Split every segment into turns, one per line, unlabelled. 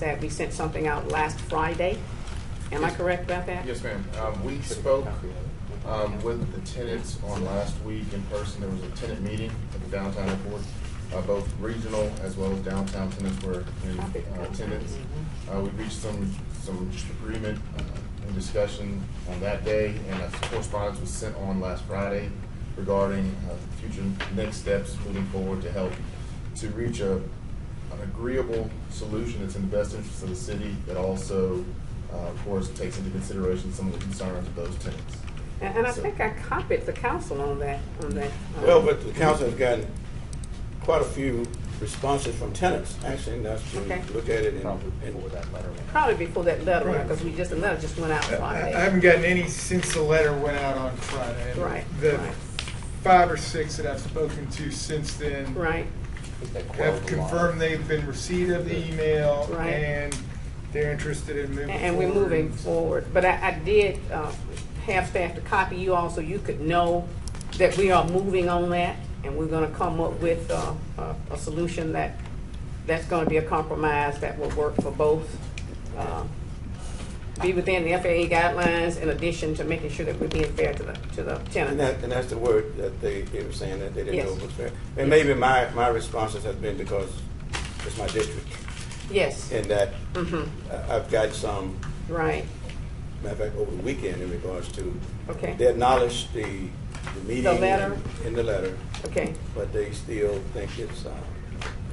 that we sent something out last Friday. Am I correct about that?
Yes, ma'am. Um, we spoke, um, with the tenants on last week in person. There was a tenant meeting at the downtown airport. Uh, both regional as well as downtown tenants were in uh, attendance. Uh, we reached some, some agreement uh, and discussion on that day, and a correspondence was sent on last Friday regarding, uh, future next steps moving forward to help to reach a, an agreeable solution that's in the best interest of the city that also, uh, of course, takes into consideration some of the concerns of those tenants.
And and I think I copied the council on that, on that. um,
Well, but the council has gotten quite a few responses from tenants, actually, that's to
Okay.
look at it and.
Probably
and-
before that letter went out.
Probably before that letter, because we just, the letter just went out
I
Friday.
I haven't gotten any since the letter went out on Friday. And
Right,
The
right.
five or six that I've spoken to since then
Right,
Put that quote
have
along.
confirmed they've been receipt of the email
Right.
and they're interested in moving
and
forward.
and we're moving forward. But I, I did uh, have staff to copy you all so you could know that we are moving on that, and we're gonna come up with uh, a, a solution that, that's gonna be a compromise that will work for both. um, Be within the FAA guidelines in addition to making sure that we're being fair to the, to the
And
tenants.
that, and that's the word that they, they were saying that they didn't know
Yes.
was fair. And maybe my, my responses have been because it's my district,
Yes,
and that
mhm,
I- I've got some,
right,
matter of fact, over the weekend in regards to.
Okay.
They acknowledged the, the meeting.
letter?
In the letter,
okay.
but they still think it's, uh,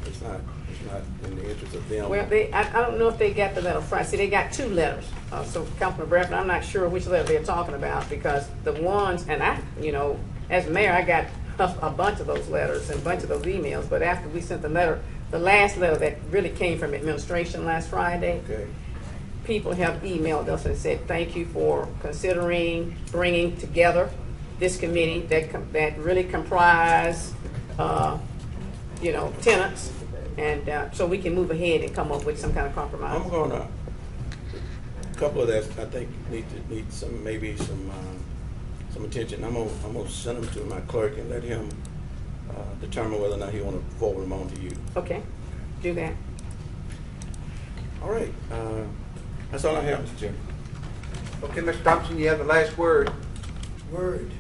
it's not, it's not in the interest of them.
Well, they, I, I don't know if they got the letter Friday. See, they got two letters. Uh, so Councilman Bradford, I'm not sure which letter they're talking about because the ones, and I, you know, as mayor, I got a, a bunch of those letters and a bunch of those emails. But after we sent the letter, the last letter that really came from administration last Friday,
Okay.
people have emailed us and said, thank you for considering bringing together this committee that, com- that really comprise, uh, you know, tenants. And, uh, so we can move ahead and come up with some kind of
I'm
compromise.
gonna, a couple of that, I think, need to, need some, maybe some, uh, some attention. I'm gonna, I'm gonna send them to my clerk and let him, uh, determine whether or not he wanna forward them on to you.
Okay, do that.
All right, uh, that's all I have, Mr. Chairman.
Okay, Mr. Thompson, you have the last word.
Word.